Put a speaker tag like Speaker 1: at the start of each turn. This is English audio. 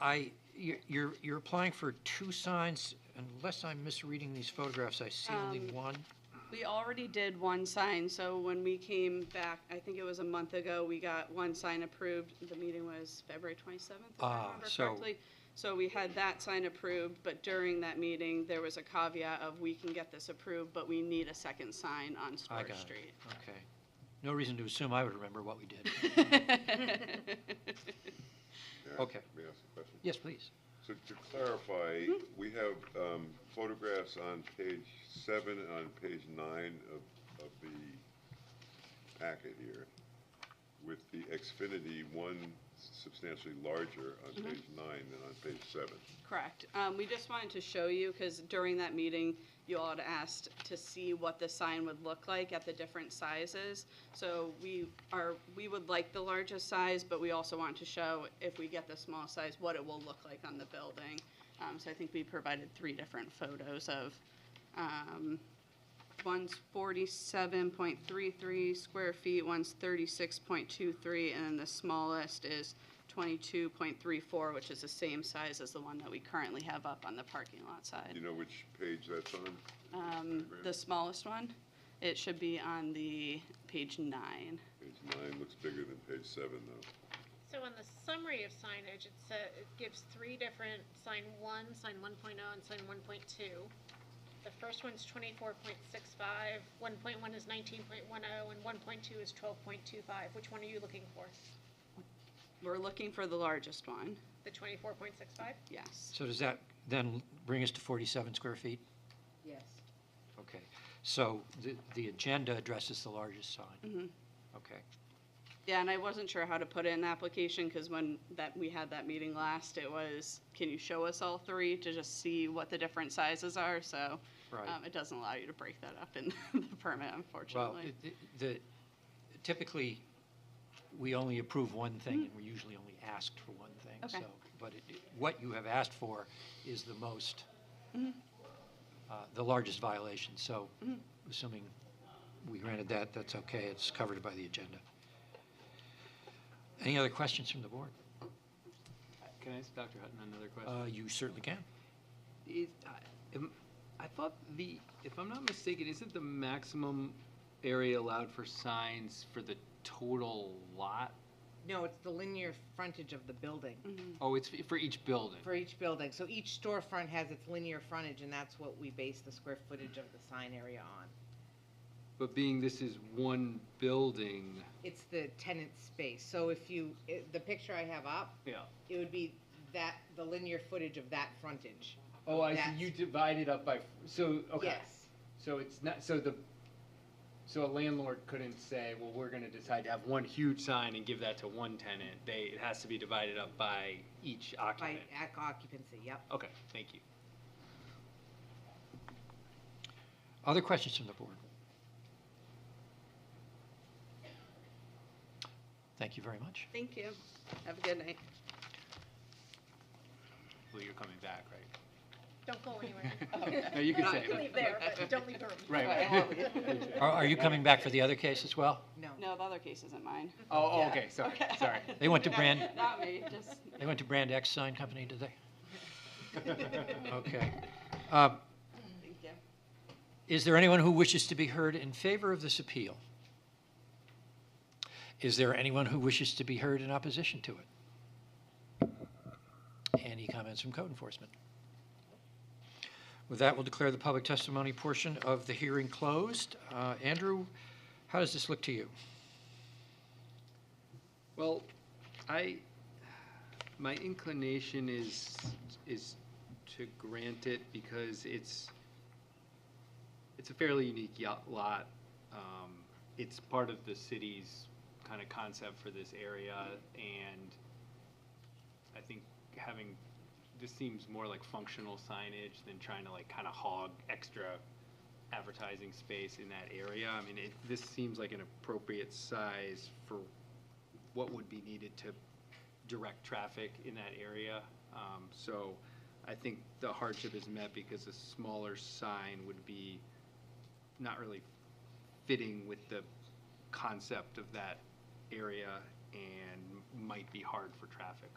Speaker 1: I, you're- you're, you're applying for two signs, unless I'm misreading these photographs, I see only
Speaker 2: Um,
Speaker 1: one.
Speaker 2: We already did one sign, so when we came back, I think it was a month ago, we got one sign approved. The meeting was February 27th, if I
Speaker 1: Ah,
Speaker 2: remember
Speaker 1: so-
Speaker 2: correctly. So we had that sign approved, but during that meeting, there was a caveat of we can get this approved, but we need a second sign on
Speaker 1: I
Speaker 2: Storch
Speaker 1: got it,
Speaker 2: Street.
Speaker 1: okay. No reason to assume I would remember what we did.
Speaker 3: May I ask-
Speaker 1: Okay.
Speaker 3: May I ask a question?
Speaker 1: Yes, please.
Speaker 3: So to clarify, we have um, photographs on page seven and on page nine of, of the packet here with the Xfinity one substantially larger on page nine than on page seven.
Speaker 2: Correct. Um, we just wanted to show you, because during that meeting, you all had asked to see what the sign would look like at the different sizes. So we are, we would like the largest size, but we also want to show, if we get the small size, what it will look like on the building. Um, so I think we provided three different photos of, um, one's forty-seven point three-three square feet, one's thirty-six point two-three, and then the smallest is twenty-two point three-four, which is the same size as the one that we currently have up on the parking lot
Speaker 3: You
Speaker 2: side.
Speaker 3: know which page that's on?
Speaker 2: Um, the smallest one, it should be on the page nine.
Speaker 3: Page nine looks bigger than page seven though.
Speaker 4: So in the summary of signage, it says, it gives three different, sign one, sign one and sign one point two. The first one's 24.65, 1.1 is nineteen point one oh, and one point two is twelve point two five. Which one are you looking for?
Speaker 2: We're looking for the largest one,
Speaker 4: The twenty-four point six five?
Speaker 2: yes.
Speaker 1: So does that then bring us to 47 square feet?
Speaker 5: Yes.
Speaker 1: Okay, so the, the agenda addresses the largest sign?
Speaker 2: Mhm.
Speaker 1: Okay,
Speaker 2: Yeah, and I wasn't sure how to put it in the application, because when that, we had that meeting last, it was, can you show us all three to just see what the different sizes are, so.
Speaker 1: right.
Speaker 2: Um, it doesn't allow you to break that up in the permit,
Speaker 1: Well,
Speaker 2: unfortunately.
Speaker 1: it- it- the, typically, we only approve one thing, and we're usually only asked for one thing,
Speaker 2: Mm-hmm. Okay.
Speaker 1: so. But it- it- what you have asked for is the most,
Speaker 2: Mm-hmm.
Speaker 1: uh, the largest violation, so assuming we granted that, that's okay, it's covered by the agenda. Any other questions from the board?
Speaker 6: Can I ask Dr. Hutton another question?
Speaker 1: Uh, You certainly can.
Speaker 6: Is, I, am- I thought the, if I'm not mistaken, isn't the maximum area allowed for signs for the total lot?
Speaker 5: No, it's the linear frontage of the building
Speaker 2: Mm-hmm.
Speaker 6: Oh, it's for each building?
Speaker 5: for each building. So each storefront has its linear frontage, and that's what we base the square footage of the sign area on.
Speaker 6: But being this is one building.
Speaker 5: It's the tenant space. So if you, i- the picture I have up,
Speaker 6: Yeah.
Speaker 5: it would be that, the linear footage of that frontage.
Speaker 6: Oh, I see,
Speaker 5: That's-
Speaker 6: you divide it up by, so, okay.
Speaker 5: Yes.
Speaker 6: So it's not, so the, so a landlord couldn't say, well, we're gonna decide to have one huge sign and give that to one tenant. They, it has to be divided up by each
Speaker 5: By e-
Speaker 6: occupant.
Speaker 5: ac- occupancy, yep.
Speaker 6: Okay, thank you.
Speaker 1: Other questions from the board? Thank you very much.
Speaker 2: Thank you. Have a good night.
Speaker 6: Well, you're coming back, right?
Speaker 4: Don't go anywhere.
Speaker 6: No, you can
Speaker 4: Not
Speaker 6: say.
Speaker 4: to leave there, but don't leave the room.
Speaker 6: Right, right.
Speaker 1: Are, are you coming back for the other case as well?
Speaker 5: No.
Speaker 2: No, the other case isn't mine.
Speaker 6: Oh, oh,
Speaker 5: Yeah.
Speaker 6: okay, sorry, sorry.
Speaker 1: They went to
Speaker 2: No,
Speaker 1: Brand,
Speaker 2: Not me, just,
Speaker 1: they went to Brand X Sign Company, did they? Okay. Uh,
Speaker 2: thank you.
Speaker 1: Is there anyone who wishes to be heard in favor of this appeal? Is there anyone who wishes to be heard in opposition to it? Any comments from code enforcement? With that, we'll declare the public testimony portion of the hearing closed. Uh, Andrew, how does this look to you?
Speaker 6: Well, I, my inclination is, is to grant it because it's, it's a fairly unique yacht lot. Um, It's part of the city's kind of concept for this area and I think having, this seems more like functional signage than trying to like kind of hog extra advertising space in that area. I mean, it, this seems like an appropriate size for what would be needed to direct traffic in that area. Um, So I think the hardship is met because a smaller sign would be not really fitting with the concept of that area and might be hard for traffic.